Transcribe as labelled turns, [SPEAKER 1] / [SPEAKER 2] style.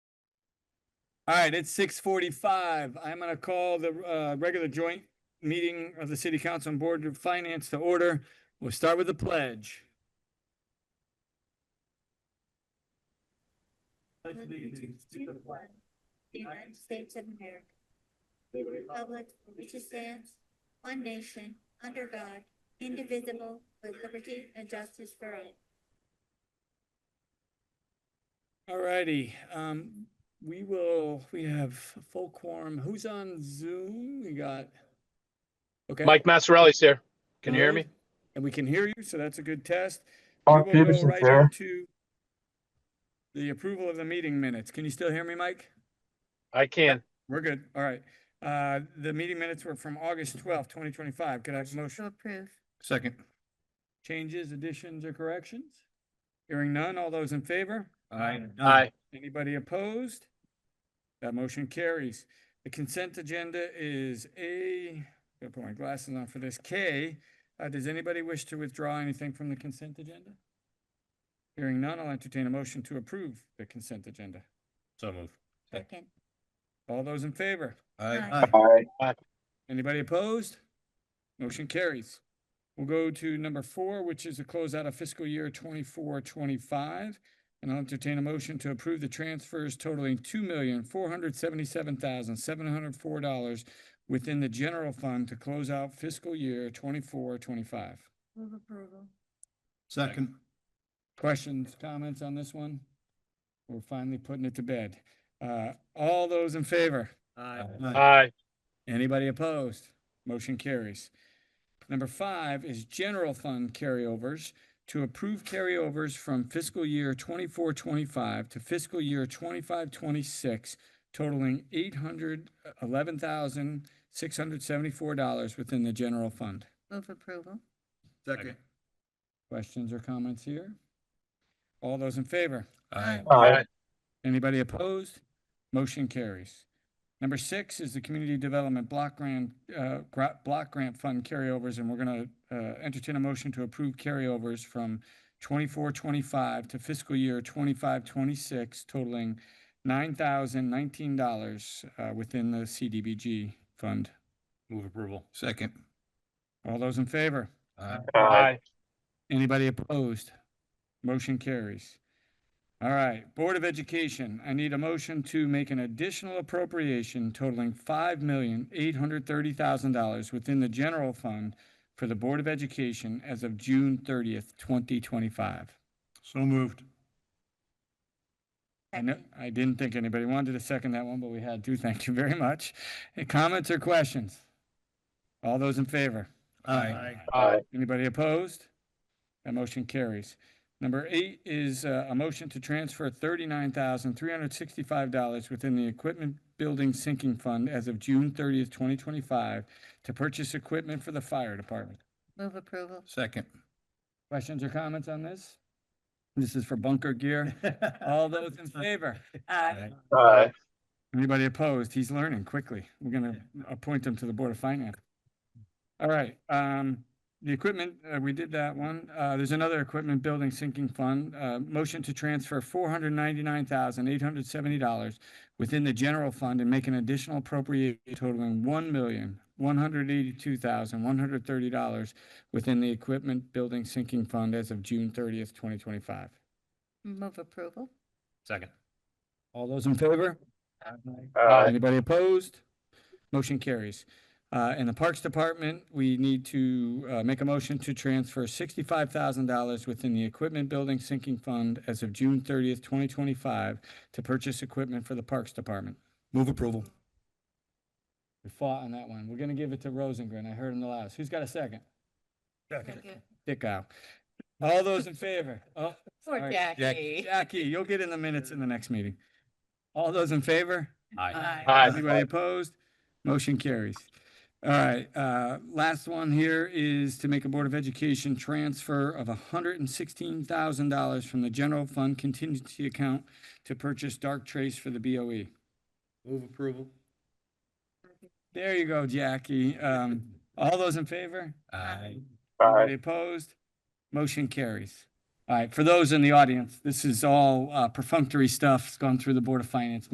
[SPEAKER 1] All right, it's six forty-five. I'm gonna call the uh regular joint meeting of the City Council and Board of Finance to order. We'll start with the pledge.
[SPEAKER 2] United States of America, Republic for which it stands, one nation, under God, indivisible, with liberty and justice for all.
[SPEAKER 1] All righty, um, we will, we have full quorum. Who's on Zoom? We got. Okay.
[SPEAKER 3] Mike Massarelli's here. Can you hear me?
[SPEAKER 1] Alright, And we can hear you, so that's a good test. We
[SPEAKER 4] Mark
[SPEAKER 1] will go
[SPEAKER 4] Peterson's
[SPEAKER 1] right
[SPEAKER 4] there.
[SPEAKER 1] into The approval of the meeting minutes. Can you still hear me, Mike?
[SPEAKER 3] I can.
[SPEAKER 1] We're good. All right. Uh, the meeting minutes were from August twelfth, twenty twenty-five. Could I have a motion?
[SPEAKER 2] To approve.
[SPEAKER 1] Second. Changes, additions, or corrections? Hearing none. All those in favor? Aye.
[SPEAKER 3] Aye.
[SPEAKER 1] Anybody opposed? That motion carries. The consent agenda is A, gotta put my glasses on for this, K. Uh, does anybody wish to withdraw anything from the consent agenda? Hearing none, I'll entertain a motion to approve the consent agenda.
[SPEAKER 5] So move.
[SPEAKER 2] Second.
[SPEAKER 1] All those in favor?
[SPEAKER 2] Aye.
[SPEAKER 4] Aye.
[SPEAKER 1] Anybody opposed? Motion carries. We'll go to number four, which is a closeout of fiscal year twenty-four, twenty-five. And I'll entertain a motion to approve the transfers totaling two million, four hundred seventy-seven thousand, seven hundred four dollars within the general fund to close out fiscal year twenty-four, twenty-five.
[SPEAKER 2] Move approval.
[SPEAKER 5] Second.
[SPEAKER 1] Questions, comments on this one? We're finally putting it to bed. Uh, all those in favor?
[SPEAKER 3] Aye.
[SPEAKER 1] Anybody opposed? Motion carries. Number five is general fund carryovers. To approve carryovers from fiscal year twenty-four, twenty-five to fiscal year twenty-five, twenty-six totaling eight hundred eleven thousand, six hundred seventy-four dollars within the general fund.
[SPEAKER 2] Move approval.
[SPEAKER 5] Second.
[SPEAKER 1] Questions or comments here? All those in favor?
[SPEAKER 2] Aye.
[SPEAKER 3] Aye.
[SPEAKER 1] Anybody opposed? Motion carries. Number six is the Community Development Block Grant, uh, gra- Block Grant Fund carryovers, and we're gonna, uh, entertain a motion to approve carryovers from twenty-four, twenty-five to fiscal year twenty-five, twenty-six totaling nine thousand nineteen dollars, uh, within the CDBG fund.
[SPEAKER 5] Move approval. Second.
[SPEAKER 1] All those in favor?
[SPEAKER 5] Aye.
[SPEAKER 3] Aye.
[SPEAKER 1] Anybody opposed? Motion carries. All right, Board of Education, I need a motion to make an additional appropriation totaling five million, eight hundred thirty thousand dollars within the general fund for the Board of Education as of June thirtieth, twenty twenty-five.
[SPEAKER 5] So moved.
[SPEAKER 1] I know, I didn't think anybody wanted to second that one, but we had to. Thank you very much. Any Comments or questions? All those in favor?
[SPEAKER 5] Aye.
[SPEAKER 3] Aye.
[SPEAKER 1] Anybody opposed? That motion carries. Number eight is uh, a motion to transfer thirty-nine thousand, three hundred sixty-five dollars within the Equipment Building Sinking Fund as of June thirtieth, twenty twenty-five to purchase equipment for the fire department.
[SPEAKER 2] Move approval.
[SPEAKER 5] Second.
[SPEAKER 1] Questions or comments on this? This is for bunker gear. All those in favor?
[SPEAKER 3] Aye.
[SPEAKER 1] Anybody opposed? He's learning quickly. We're gonna appoint him to the Board of Finance. All right, um, the equipment, uh, we did that one. Uh, there's another equipment building sinking fund. Uh, motion to transfer four hundred ninety-nine thousand, eight hundred seventy dollars within the general fund and make an additional appropriation totaling one million, one hundred eighty-two thousand, one hundred thirty dollars within the equipment building sinking fund as of June thirtieth, twenty twenty-five.
[SPEAKER 2] Move approval.
[SPEAKER 5] Second.
[SPEAKER 1] All those in favor?
[SPEAKER 3] Aye.
[SPEAKER 1] Anybody opposed? Motion carries. Uh, in the Parks Department, we need to, uh, make a motion to transfer sixty-five thousand dollars within the Equipment Building Sinking Fund as of June thirtieth, twenty twenty-five to purchase equipment for the Parks Department.
[SPEAKER 5] Move approval.
[SPEAKER 1] We fought on that one. We're gonna give it to Rosengren. I heard him the loudest. Who's got a second? Dickow. All those in favor? Oh,
[SPEAKER 2] For
[SPEAKER 1] All right,
[SPEAKER 2] Jackie.
[SPEAKER 1] Jackie, you'll get in the minutes in the next meeting. All those in favor?
[SPEAKER 2] Aye.
[SPEAKER 1] Anybody opposed? Motion carries. All right, uh, last one here is to make a Board of Education transfer of hundred and sixteen thousand dollars from the general fund contingency account to purchase dark trace for the E. BOE.
[SPEAKER 5] Move approval.
[SPEAKER 1] There you go, Jackie. Um, all those in favor?
[SPEAKER 2] Aye.
[SPEAKER 1] Anybody opposed? Motion carries. All right, for those in the audience, this is all, uh, perfunctory stuff. It's gone through the Board of Finance